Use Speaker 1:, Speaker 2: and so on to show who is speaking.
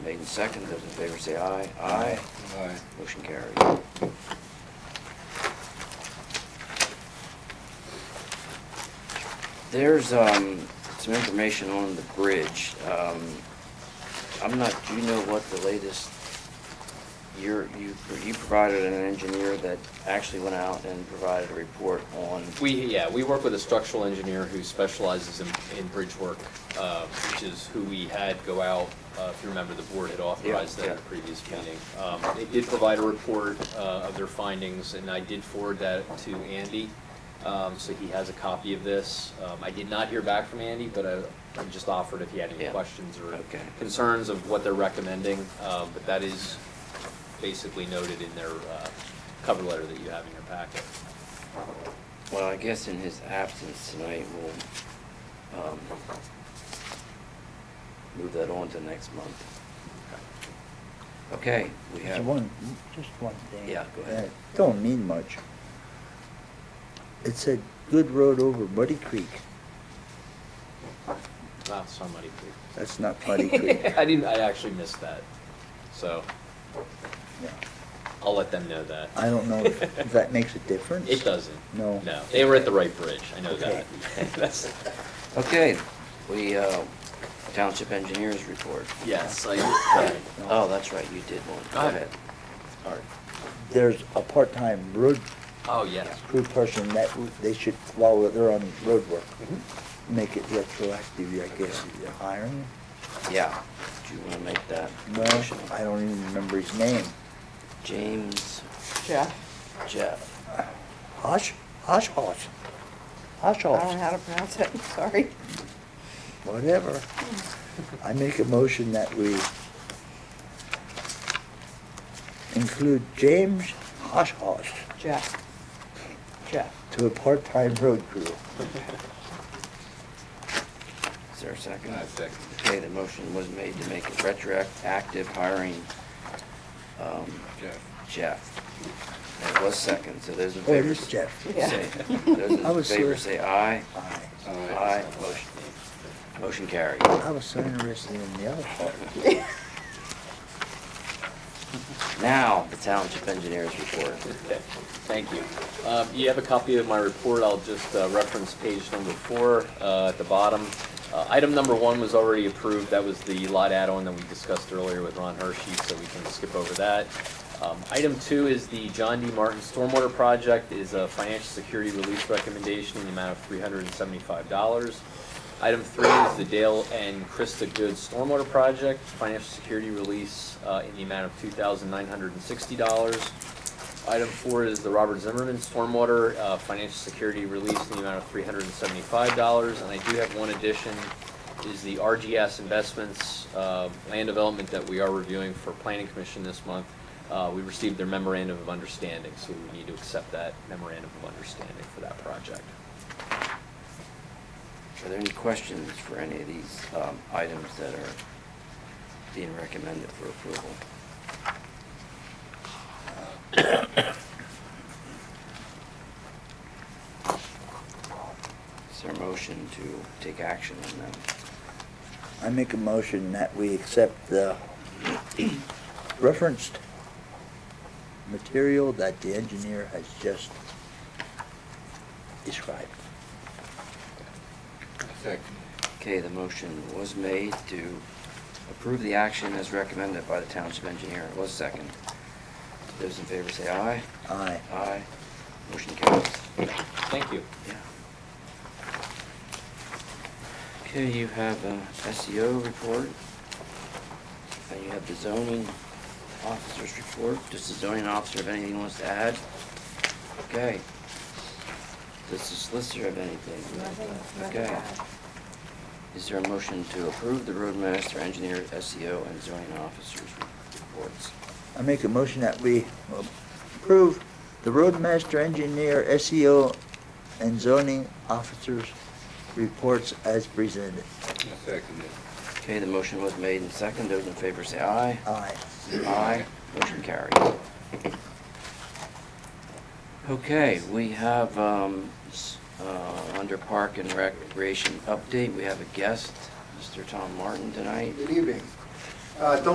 Speaker 1: Made and second, those in favor say aye. Aye.
Speaker 2: Aye.
Speaker 1: Motion carried. There's um, some information on the bridge. Um, I'm not, do you know what the latest, you're- you you provided an engineer that actually went out and provided a report on,
Speaker 3: We, yeah, we work with a structural engineer who specializes in, in bridge work, uh, which is who we had go out, uh, if you remember, the board had authorized that in the
Speaker 1: yeah.
Speaker 3: previous
Speaker 1: Yeah.
Speaker 3: meeting. Um, They did provide a report uh, of their findings, and I did forward that to Andy, um, so he has a copy of this. Um, I did not hear back from Andy, but I I just offered if he had any
Speaker 1: Yeah.
Speaker 3: questions or
Speaker 1: Okay.
Speaker 3: concerns of what they're recommending, um, but that is basically noted in their uh, cover letter that you have in your packet.
Speaker 1: well, I guess in his absence tonight, we'll um, move that on to next month. Okay, we
Speaker 4: Just
Speaker 1: have.
Speaker 4: one, just one thing.
Speaker 1: Yeah, go ahead.
Speaker 4: Uh, Don't mean much. It said good road over Muddy Creek.
Speaker 3: Not somebody, please.
Speaker 4: That's not Muddy Creek.
Speaker 3: I didn't, I actually missed that. So
Speaker 4: No.
Speaker 3: I'll let them know that.
Speaker 4: I don't know if if that makes a difference.
Speaker 3: It doesn't.
Speaker 4: No.
Speaker 3: No, they were at the right bridge. I know that.
Speaker 4: Okay.
Speaker 3: That's,
Speaker 1: Okay, we, uh, Township Engineers Report.
Speaker 3: yes, I,
Speaker 1: Oh, that's right, you did one. Go
Speaker 3: Oh.
Speaker 1: ahead. All right.
Speaker 4: There's a part-time road
Speaker 3: oh, yes.
Speaker 4: crew person that w- they should, while they're on road work,
Speaker 1: Mm-hmm.
Speaker 4: make it retroactive, I guess, if you're hiring.
Speaker 1: Yeah. Do you want to make that
Speaker 4: Well,
Speaker 1: motion?
Speaker 4: I don't even remember his name.
Speaker 1: James
Speaker 5: Jeff.
Speaker 1: Jeff.
Speaker 4: Hosh, Hosh Hosh. Hosh
Speaker 5: I don't know
Speaker 4: Hosh,
Speaker 5: how to pronounce it, sorry.
Speaker 4: whatever. I make a motion that we include James Hosh Hosh
Speaker 5: Jeff. Jeff.
Speaker 4: to a part-time road crew.
Speaker 1: Is there a second?
Speaker 2: I second.
Speaker 1: Okay, the motion was made to make it retroactive hiring um,
Speaker 2: Jeff.
Speaker 1: Jeff. It was second, so those in
Speaker 4: Oh, it
Speaker 1: favor.
Speaker 4: is Jeff.
Speaker 5: Yeah.
Speaker 1: Say, those in
Speaker 4: was
Speaker 1: favor
Speaker 4: here.
Speaker 1: say aye.
Speaker 4: Aye.
Speaker 1: Aye. Motion- Motion carried.
Speaker 4: I was so interested in the other part.
Speaker 1: Now, the Township Engineers Report.
Speaker 3: Okay, thank you. Um, You have a copy of my report, I'll just uh, reference page number four uh, at the bottom. Uh, Item number one was already approved, that was the lot add-on that we discussed earlier with Ron Hershey, so we can skip over that. Um, Item two is the John D. Martin Stormwater Project, It is a financial security release recommendation in the amount of $375. Item three is the Dale and Krista Good Stormwater Project, financial security release uh, in the amount of $2,960. Item four is the Robert Zimmerman Stormwater uh, Financial Security Release in the amount of three hundred and seventy-five dollars. And I do have one addition, is the RGS Investments uh, Land Development that we are reviewing for Planning Commission this month. Uh, We received their memorandum of understanding, so we need to accept that memorandum of understanding for that project.
Speaker 1: Are there any questions for any of these um, items that are being recommended for approval? Is there a motion to take action on them?
Speaker 4: I make a motion that we accept the referenced material that the engineer has just described.
Speaker 2: I second.
Speaker 1: Okay, the motion was made to approve the action as recommended by the township engineer. It was second. Those in favor say aye.
Speaker 4: Aye.
Speaker 1: Aye. Motion carries.
Speaker 3: Thank you.
Speaker 1: Yeah. Okay, you have a SEO report, and you have the zoning officer's report. Does the zoning officer have anything he wants to add? Okay. Does the solicitor have anything? Okay. Is there a motion to approve the roadmaster, engineer, SEO, and zoning officer's reports?
Speaker 4: I make a motion that we approve the roadmaster engineer, SEO, and zoning officers' reports as presented.
Speaker 2: I second it.
Speaker 1: Okay, the motion was made and second. Those in favor say aye.
Speaker 4: Aye.
Speaker 1: Aye. Motion carried. Okay, we have, um, s- uh, under Park and Recreation update, we have a guest, Mr. Tom Martin tonight.
Speaker 6: Good evening. Uh, Don't